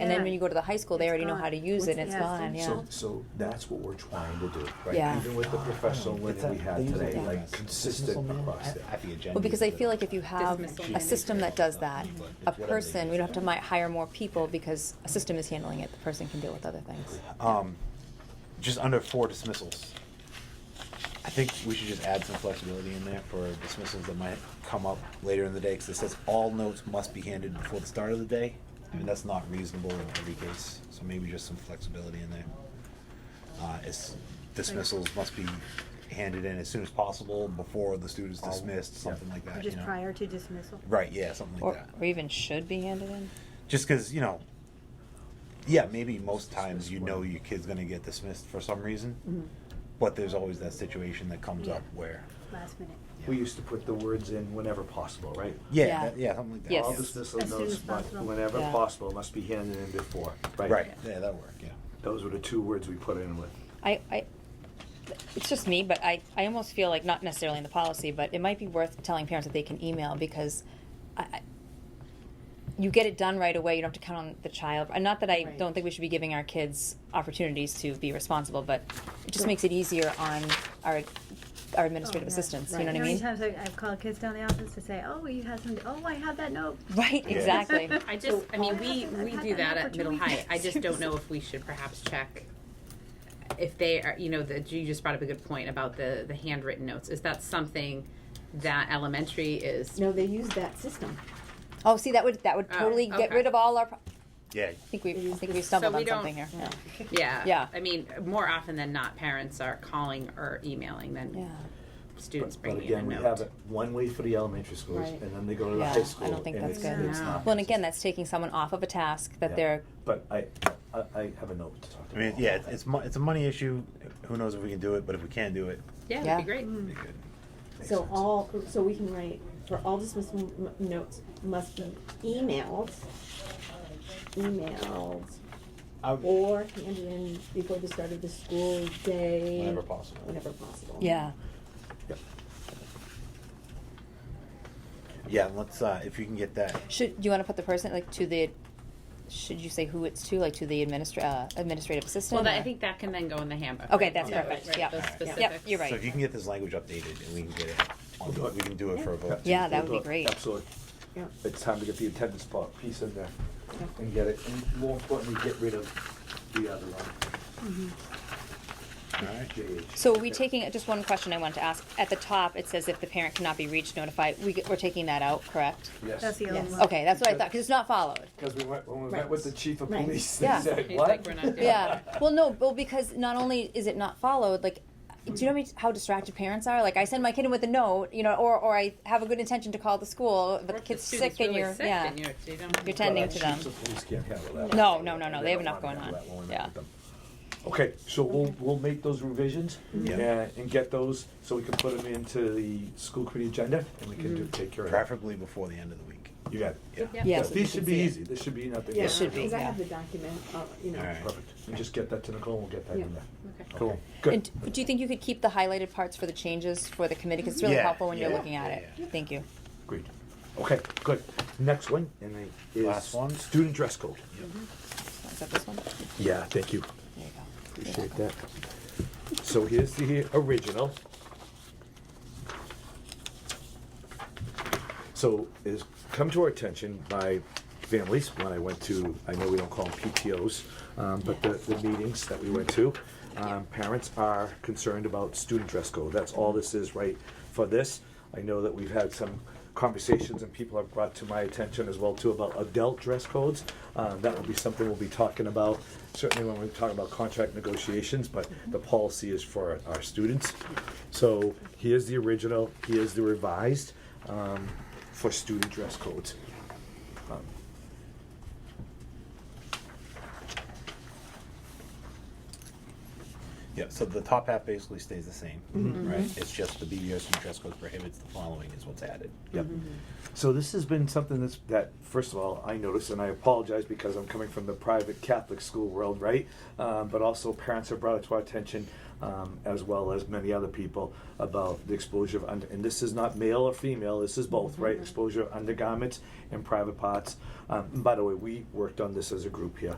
and then Right. when you go to the high school, they It's already know gone. how to use it, and it's Yeah. gone, yeah. So, so that's what we're trying to do, right? Yeah. Even with the Oh, professional It's learning a- we have they use today, it like as consistent dismissal across manual. that. Well, because I feel like if you have Dismissal a management. system that does that, a person, we don't have to mi- hire more people because a system is handling it, the person can deal with other things. Um, just under four dismissals. I think we should just add some flexibility in there for dismissals that might come up later in the day, because it says all notes must be handed before the start of the day. I mean, that's not reasonable in every case, so maybe just some flexibility in there. Uh, it's dismissals must be handed in as soon as possible before the student's Oh, All- dismissed, something yeah. like that, you Just know? prior to dismissal. Right, yeah, something like Or, that. or even should be handed in. Just because, you know, yeah, maybe most times you know your kid's gonna get dismissed for some reason, Mm-hmm. but there's always that situation that comes up where, Last minute. We used to put the words in whenever possible, right? yeah, Yeah. that- yeah, something like that. Yes. All yeah. dismissal As soon notes, as but possible. whenever Yeah. possible, must be handed in before, right? Right, yeah, that work, yeah. Those were the two words we put in with. I, I, it's just me, but I, I almost feel like not necessarily in the policy, but it might be worth telling parents that they can email because I, I you get it done right away. You don't have to count on the child. And not that I Right. don't think we should be giving our kids opportunities to be responsible, but it just makes it easier on our our administrative Oh, yeah. assistants. You Right. know what I How many mean? times I- I've called kids down the office to say, oh, you had some, oh, I had that note. Right, Yeah. exactly. I just, I mean, we, I've we had do that that at middle opportunity. high. I just don't know if we should perhaps check if they are, you know, that you just brought up a good point about the, the handwritten notes. Is that something that elementary is? No, they use that system. oh, see, that would that would Oh, totally get okay. rid of all our. Pro- Yeah, I think we I think we stumbled So we on something here. don't- Yeah. Yeah. I mean, more often than not, parents are calling or emailing than Yeah. students But bringing again, in we a note. have it one way for the elementary schools, Right. and then they go to the Yeah, I high don't school. think and that's it's- good. it's not Well, and again, consistent. that's taking someone off of a task that Yeah. they're But I, I, I have a note to talk to. I mean, Paul yeah, about that. it's mo- it's a money issue. Who knows if we can do it, but if we can do it, yeah, Yeah. Mm. that'd be great. it'd be good. Makes So sense. all, so we can write, for all dismissal m- notes must be emailed, emailed, I would- or handed in before the start of the school day. Whenever possible. Whenever possible. yeah. Yeah, let's, uh, if you can get that, Should do you want to put the person like to the? Should you say who it's to, like to the administra- uh, administrative assistant? Well, that, I or- think that can then go in the handbook. Okay, right? that's Yeah. perfect. Right, Yeah. those Yeah. Yep, specifics. you're right. so if you can get this language updated and we can get it, on the- we can do it for a vote. Yeah, that would Look, be great. Absolutely. Yeah. It's time to get the attendance part piece in there Yeah. and get it, and more importantly, get rid of the other one. Mm-hmm. All right. JH. So are we taking just one question I wanted to ask at the top? It says if the parent cannot be reached, notify. We, we're taking that out, correct? Yes. That's the Yes. old one. Okay, that's what I thought because it's not followed. Because we went, when we met Right. with the chief of Right. police, they Yeah. said, He's what? like, "We're not doing Yeah. Well, no. Well, because not only is it not followed, like, do you know how many- how distracted parents are? Like, I send my kid in with a note, you know, or or I have a good intention to call the school, but Or the if kid's student's sick and really you're sick yeah. and you're, you don't have You're Well, tending the to them. chiefs of police can't handle that. No, no, no, no, they have don't enough wanna going handle on. that when we met Yeah. with them. Okay, so we'll, we'll make those revisions Mm-hmm. uh, Yeah. and, and get those, so we can put them into the school committee agenda, and we can Mm-hmm. do, take care of it. Preferably before the end of the week. You got it. Yeah. Yeah. These should be Yeah. easy, this should be nothing. Yeah, but- should be, Cause I yeah. have the document, uh, you know. All right. Perfect, and just get that to Nicole, and we'll get that in Yeah. there. Okay. Cool. Good. And do you think you could keep the highlighted parts for the changes for the committee? Because it's really Yeah, helpful when you're yeah, looking at yeah, it. Thank you. Agreed. Okay, good. Next one and then is Last one. student dress code. Is that this one? There Yeah, thank you. you go. Appreciate that. So here's the original. So it's come to our attention by families when I went to, I know we don't call them PTOs, um, but the, the meetings that we went to. Um, parents are concerned about student dress code. That's all this is right for this. I know that we've had some conversations and people have brought to my attention as well too about adult dress codes. Um, that will be something we'll be talking about, certainly when we talk about contract negotiations, but the policy is for our students. So here's the original, here's the revised um, for student dress codes. Um, Yeah, Yeah, so the top half basically stays the same, right? It's just the BBOC dress code prohibits the following is what's added. Yep. So this has been something that's, that, first of all, I noticed, and I apologize because I'm coming from the private Catholic school world, right? Um, but also parents have brought it to our attention, um, as well as many other people, about the exposure of, under, and this is not male or female, this is both, right? Exposure of undergarments and private parts. Um, and by the way, we worked on this as a group here.